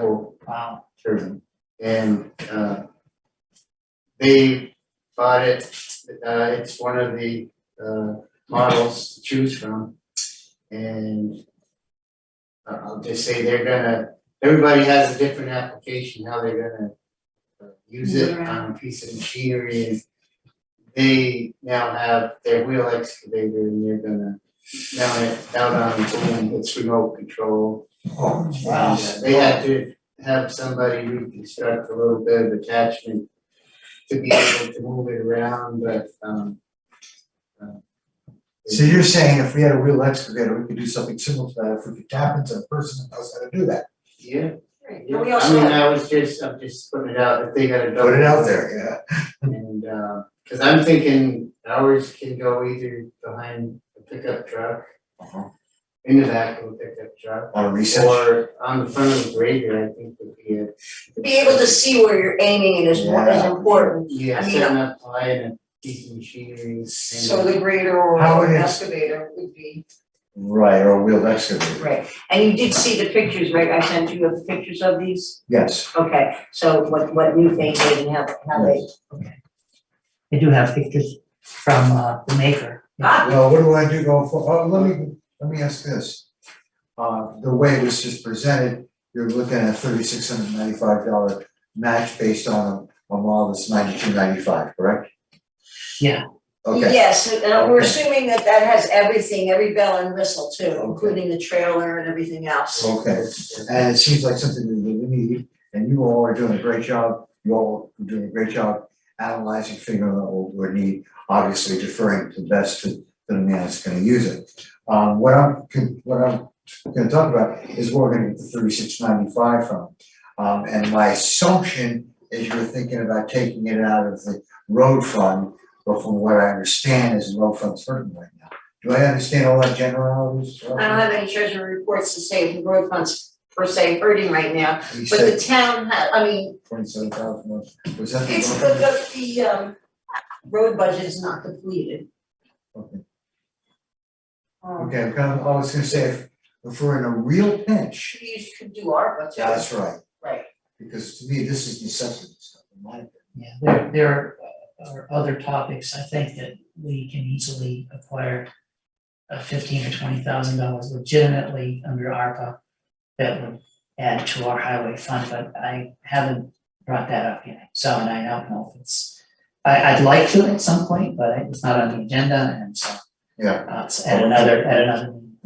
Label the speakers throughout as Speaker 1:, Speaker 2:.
Speaker 1: Joe
Speaker 2: Wow,
Speaker 1: Sherman. And, uh, they bought it, uh, it's one of the, uh, models to choose from. And I- I'll just say they're gonna, everybody has a different application, how they're gonna uh, use it on a piece of machinery and they now have their wheel excavator and they're gonna mount it down on the boom, it's remote control.
Speaker 2: wow.
Speaker 1: Yeah, They had to have somebody reconstruct a little bit of attachment to be able to move it around, but, um. uh,
Speaker 3: So you're saying if we had a real excavator, we could do something similar to that, if we could tap into a person that knows how to do that,
Speaker 1: Yeah,
Speaker 4: Right,
Speaker 1: yeah,
Speaker 4: but we
Speaker 1: I
Speaker 4: also
Speaker 1: mean,
Speaker 4: have,
Speaker 1: I was just, I'm just putting it out, if they got a double.
Speaker 3: put it out there, yeah.
Speaker 1: And, uh, cause I'm thinking ours can go either behind the pickup truck, in the back of the pickup truck.
Speaker 3: On Uh-huh. research,
Speaker 1: Or on the front of the grader, I think would be it.
Speaker 4: to be able to see where you're aiming is what is
Speaker 3: Yeah.
Speaker 4: important,
Speaker 1: Yeah,
Speaker 4: I mean,
Speaker 1: setting up ply and a piece of machinery and.
Speaker 4: so the grader or
Speaker 3: How it is.
Speaker 4: excavator would be,
Speaker 3: right, or a wheeled excavator,
Speaker 4: right. And you did see the pictures, right, I sent you the pictures of these,
Speaker 3: yes.
Speaker 4: okay, so what what you think they and how how they,
Speaker 2: I do have pictures from uh, the maker.
Speaker 4: Ah.
Speaker 3: Well, what do I do going for, oh, let me, let me ask this. Uh, the way it was just presented, you're looking at thirty-six hundred ninety-five dollar match based on a, a model that's ninety-two ninety-five, correct?
Speaker 2: Yeah.
Speaker 3: Okay,
Speaker 4: Yes, and we're
Speaker 3: Okay.
Speaker 4: assuming that that has everything, every bell and whistle too,
Speaker 3: Okay.
Speaker 4: including the trailer and everything else.
Speaker 3: okay, and it seems like something we really need, and you all are doing a great job, you all are doing a great job analyzing, figuring out what we need, obviously deferring to best to to the man that's gonna use it. Um, what I'm, con- what I'm gonna talk about is where we're gonna get the thirty-six ninety-five from. Um, and my assumption is you're thinking about taking it out of the road fund, but from what I understand is the road fund's hurting right now. Do I understand all that generalities?
Speaker 4: I don't have any treasury reports to say if the road funds per se hurting right now,
Speaker 3: You
Speaker 4: but
Speaker 3: said-
Speaker 4: the town, ha- I mean,
Speaker 3: Twenty-seven thousand, was that the?
Speaker 4: It's
Speaker 3: one?
Speaker 4: good that the um road budget is not completed.
Speaker 3: Okay,
Speaker 4: Um,
Speaker 3: Okay, because I was gonna say, if, if we're in a real pinch,
Speaker 4: we could do ARPA too.
Speaker 3: that's right,
Speaker 4: Right,
Speaker 3: because to me, this is necessity, stuff, in my opinion.
Speaker 2: Yeah, there, there are other topics, I think, that we can easily acquire uh, fifteen or twenty thousand dollars legitimately under ARPA that would add to our highway fund, but I haven't brought that up yet. So, and I don't know if it's, I, I'd like to at some point, but it's not on the agenda, and so.
Speaker 3: Yeah.
Speaker 2: Uh, it's at another, at another. meeting.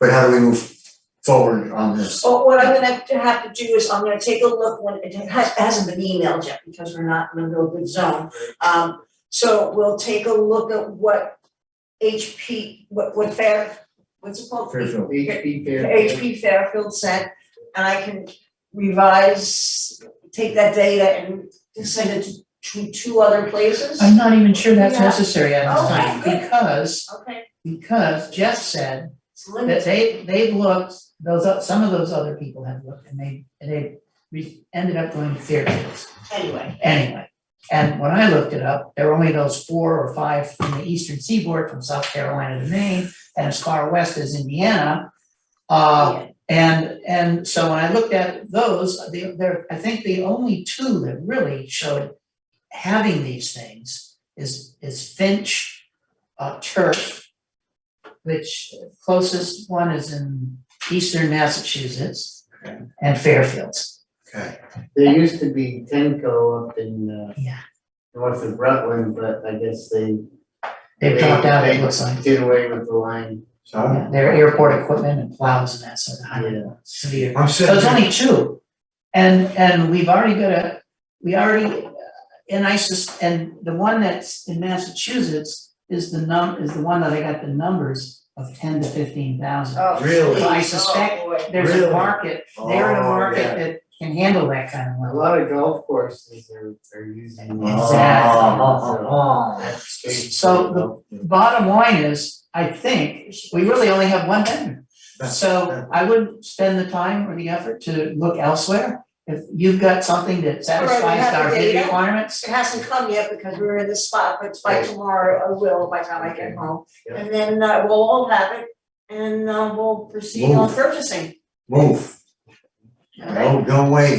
Speaker 3: But how do we move forward on this?
Speaker 4: so what I'm gonna have to have to do is I'm gonna take a look when, it has, hasn't been emailed yet because we're not in a real good zone. Um, so we'll take a look at what HP, what what Fair, what's it
Speaker 2: Oh.
Speaker 4: called?
Speaker 3: Fairfield.
Speaker 1: HP
Speaker 4: HP Fairfield sent, and I can revise, take that data and send it to two other places.
Speaker 2: I'm not even sure that's
Speaker 4: Yeah.
Speaker 2: necessary at this time,
Speaker 4: Okay, good.
Speaker 2: because,
Speaker 4: Okay,
Speaker 2: because Jeff said
Speaker 4: it's limited.
Speaker 2: that they, they've looked, those, o- some of those other people have looked and they, and they re- ended up going to Fairfields
Speaker 4: anyway.
Speaker 2: anyway. And when I looked it up, there were only those four or five from the eastern seaboard, from South Carolina to Maine, and as far west as Indiana.
Speaker 4: Oh,
Speaker 2: Uh, and, and so when I looked at those, the, there, I think the only two that really showed having these things is, is Finch, uh, Turk, which closest one is in eastern Massachusetts, and Fairfields.
Speaker 3: Okay,
Speaker 1: There used to be Tenco up in uh
Speaker 2: Yeah.
Speaker 1: north of Rutland, but I guess they
Speaker 2: They've dropped out, it looks like.
Speaker 1: did away with the line.
Speaker 3: so I'm,
Speaker 2: Yeah, Their airport equipment and plows and that sort of highway, severe.
Speaker 3: I'm
Speaker 2: So
Speaker 3: sitting
Speaker 2: it's
Speaker 3: here,
Speaker 2: only two. And, and we've already got a, we already, uh, and I sus, and the one that's in Massachusetts is the num, is the one that I got the numbers of ten to fifteen thousand.
Speaker 4: Oh,
Speaker 3: Really?
Speaker 2: I
Speaker 4: geez, oh,
Speaker 2: suspect
Speaker 4: boy.
Speaker 2: There's a
Speaker 3: Really?
Speaker 2: market, they're in a
Speaker 3: Oh,
Speaker 2: market
Speaker 3: yeah.
Speaker 2: that can handle that kind of
Speaker 1: A
Speaker 2: level.
Speaker 1: lot of golf courses are are using. it.
Speaker 2: Exactly.
Speaker 1: So
Speaker 3: Oh,
Speaker 1: that's strange.
Speaker 2: So the- Bottom line is, I think, we really only have one vendor.
Speaker 3: That's-
Speaker 2: So I wouldn't spend the time or the effort to look elsewhere. If you've got something that
Speaker 4: Alright, we
Speaker 2: satisfies
Speaker 4: have
Speaker 2: our
Speaker 4: the
Speaker 2: bid
Speaker 4: data.
Speaker 2: requirements,
Speaker 4: It hasn't come yet because we're in this spot, but by tomorrow I will, by the time I get home.
Speaker 1: Yeah.
Speaker 4: And then uh, we'll all have it and uh, we'll proceed on
Speaker 3: Move.
Speaker 4: purchasing.
Speaker 3: move,
Speaker 4: All right.
Speaker 3: no, don't wait.